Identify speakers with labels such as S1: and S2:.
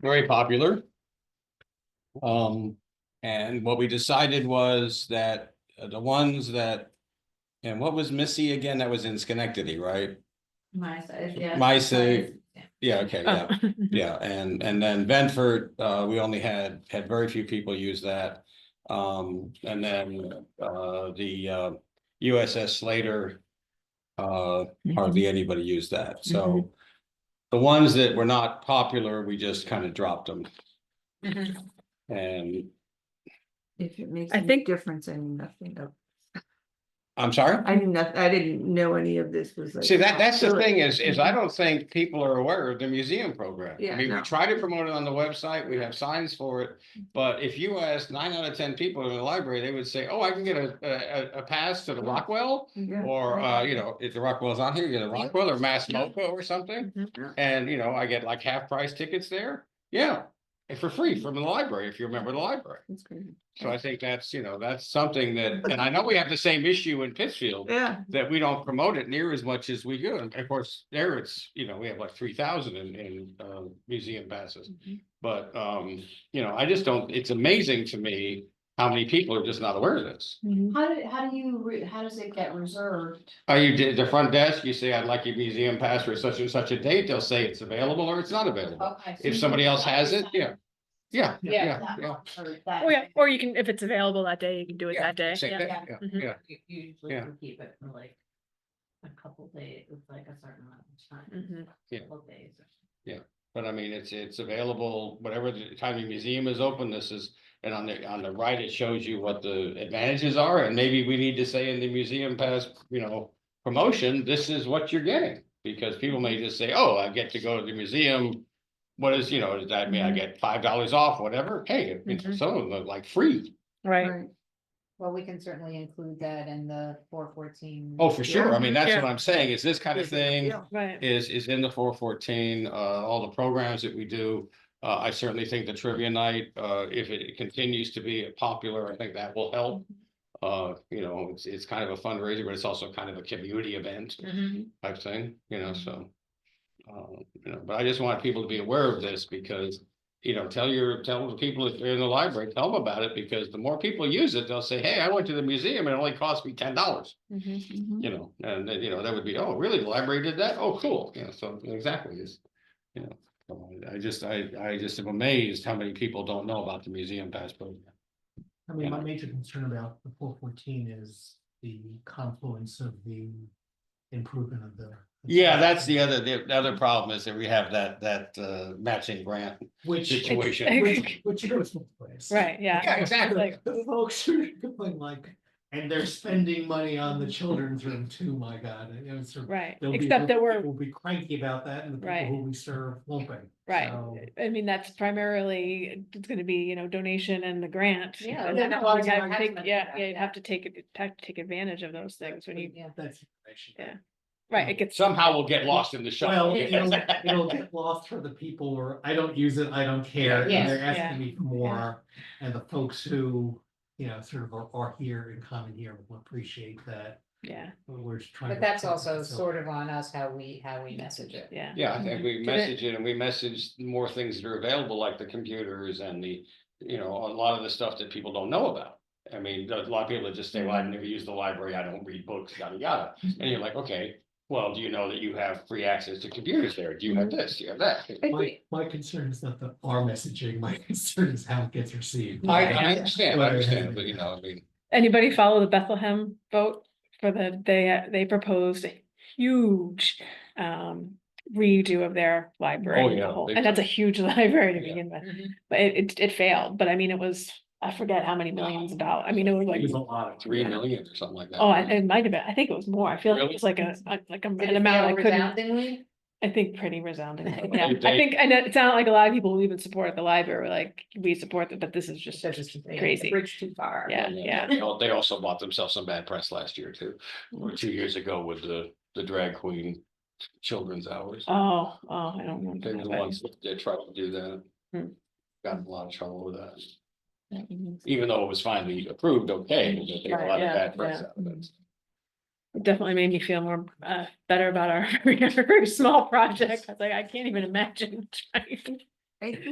S1: very popular. Um, and what we decided was that uh, the ones that, and what was Missy again? That was in Schenectady, right?
S2: My size, yeah.
S1: My size.
S2: Yeah.
S1: Yeah, okay,
S3: Oh.
S1: yeah. Yeah, and, and then Benford, uh, we only had, had very few people use that. Um, and then, uh, the, uh, USS Slater. Uh,
S4: Oh.
S1: hardly anybody used that,
S3: Mm-hmm.
S1: so. The ones that were not popular, we just kind of dropped them
S2: Mhm.
S3: Mm-hmm.
S1: and,
S3: If it makes
S4: I
S3: any
S4: think-
S3: difference, I knew nothing of,
S1: I'm sorry?
S3: I knew nothing, I didn't know any of this was like.
S1: See, that, that's the
S3: do it.
S1: thing is, is I don't think people are aware of the museum program. I
S3: Yeah,
S1: mean, we
S3: no.
S1: try to promote it on the website, we have signs for it. But if you ask nine out of ten people in the library, they would say, oh, I can get a, a, a- a pass to the Rockwell.
S3: Yeah.
S1: Or, uh, you know, if the Rockwell's on here, you get a Rockwell or Mass
S4: Yeah.
S1: Moco or something.
S4: Mhm.
S3: Yeah.
S1: And, you know, I get like half price tickets there. Yeah, and for free from the library, if you remember the library.
S3: That's crazy.
S1: So I think that's, you know, that's something that, and I know we have the same issue in Pittsfield
S3: Yeah,
S1: that we don't promote it near as much as we do. And of course, there it's, you know, we have like three thousand in, in, uh, museum passes. But, um, you know, I just don't, it's amazing to me how many people are just not aware of this.
S3: Mm-hmm.
S2: How do, how do you, re- how does it get reserved?
S1: Oh, you did the front desk, you say, I'd like your museum pass for such and such a date, they'll say it's available or it's not available.
S2: Okay. so
S1: If
S2: you
S1: somebody
S2: can
S1: else has it,
S2: advertise-
S1: yeah. Yeah,
S2: Yeah.
S1: yeah,
S2: that
S1: yeah.
S2: month or that
S4: Or Oh, yeah,
S2: day.
S4: or you can, if it's available that day, you can do it
S1: Yeah,
S4: that day.
S1: same
S4: yeah.
S1: day,
S2: yeah.
S1: yeah,
S4: Mhm.
S1: yeah.
S2: You Usually
S1: Yeah.
S2: can keep it for like a couple days, it's like a certain amount of time.
S4: Mhm.
S1: Yeah.
S2: Couple days.
S1: But I mean, it's, it's available, whatever the time the museum is open, this is, and on the, on the right, it shows you what the advantages are, and maybe we need to say in the museum pass, you know. Promotion, this is what you're getting, because people may just say, oh, I get to go to the museum. What is, you know, does that mean I
S4: Mhm.
S1: get five dollars off, whatever? Hey, it's
S4: Mhm.
S1: some of them like free.
S4: Right.
S3: right.
S2: Well, we can certainly include that in the four fourteen.
S1: Oh, for sure. I mean, that's
S4: Yeah.
S1: what I'm saying, is this kind of thing.
S3: Yeah.
S4: Right.
S1: is, is in the four fourteen, uh, all the programs that we do. Uh, I certainly think the trivia night, uh, if it continues to be popular, I think that will help. Uh, you know, it's, it's kind of a fundraiser, but it's also kind of a community event
S2: Mm-hmm.
S4: Mhm.
S1: type thing, you know, so. Uh, you know, but I just want people to be aware of this because, you know, tell your, tell the people if they're in the library, tell them about it because the more people use it, they'll say, hey, I went to the museum and it only cost me ten dollars
S4: Mhm.
S3: Mhm.
S1: you know, and then, you know, that would be, oh, really, the library did that? Oh, cool, you know, so exactly is. You know, so I just, I, I just am amazed how many people don't know about the museum pass program.
S5: I mean, my
S1: Yeah.
S5: major concern about the four fourteen is the confluence of the improvement of the.
S1: Yeah, that's the other, the other problem is that we have that, that, uh, matching grant
S5: Which,
S1: situation.
S5: which, which goes with this.
S4: Right, yeah.
S1: Yeah, exactly.
S4: Like-
S5: The folks are going like, and they're spending money on the children's room too, my God, and, you know, sort of-
S4: Right,
S5: they'll be-
S4: except that we're,
S5: We'll be cranky about that and the
S4: Right.
S5: people who we serve won't be. So-
S4: right, I mean, that's primarily, it's gonna be, you know, donation and the grant.
S2: Yeah,
S4: and
S2: yeah,
S4: I
S2: no,
S4: think-
S2: I was gonna
S4: I think-
S2: mention
S4: Yeah,
S2: that,
S4: yeah, you'd
S2: yeah.
S4: have to take, it. have to take advantage of those things when you,
S2: Yeah.
S5: That's information.
S4: Yeah. right, it gets.
S1: Somehow we'll get lost in the
S5: Well,
S1: shuffle.
S5: it'll, it'll get lost for the people who are, I don't use it, I don't care, and
S2: Yes,
S5: they're
S4: yeah.
S5: asking me for more. And the folks who, you know, sort of are, are here and come in here will appreciate that,
S4: Yeah,
S5: we're just trying.
S2: But that's also sort of on us how we, how we message it.
S4: yeah.
S1: Yeah, I think we
S4: Did it-
S1: message it and we message more things that are available, like the computers and the, you know, a lot of the stuff that people don't know about. I mean, a lot of people that just say, well, I never use the library, I don't read books, yada, yada. And you're like, okay, well, do you know that you have free access to computers there? Do you have this? Do you have that?
S5: My, my concern is not the our messaging, my concern is how it gets received.
S1: I, I understand, I understand, but you know, I mean,
S4: Anybody follow the Bethlehem vote for the, they, they proposed a huge um redo of their library.
S1: Oh,
S4: the
S1: yeah,
S4: whole-
S1: big
S4: And that's a huge library to
S1: Yeah.
S4: begin with,
S2: Mhm.
S4: but it, it, it failed, but I mean, it was, I forget how many millions of dollars, I mean, it was like.
S5: There's a lot of.
S1: three million or something like that.
S4: Oh, I- it might have been, I think it was more, I feel like it
S1: Really?
S4: was like a, a- like a-
S2: Did
S4: an
S2: it
S4: amount
S2: fail
S4: I couldn't,
S2: resoundingly?
S4: I think pretty resounding.
S2: Okay.
S4: Yeah, I
S1: They-
S4: think, I know, it sounded like a lot of people who even support the library, were like, we support them, but this is just,
S2: Because it's- yeah, the
S4: crazy.
S2: Bridge too far.
S4: yeah, yeah.
S1: They al- they also bought themselves some bad press last year too, or two years ago with the, the drag queen children's hours.
S4: Oh, oh, I don't
S1: They were
S4: remember. that,
S1: the
S4: but-
S1: ones that tried to do that.
S4: Hmm.
S1: Got in a lot of trouble with that,
S4: that means-
S1: even though it was finally approved, okay, but they got a
S4: Right,
S1: lot of
S4: yeah,
S1: bad press
S4: yeah.
S1: out of it.
S4: It Definitely made me feel more, uh, better about our very small project, I was like, I can't even imagine trying to
S3: I think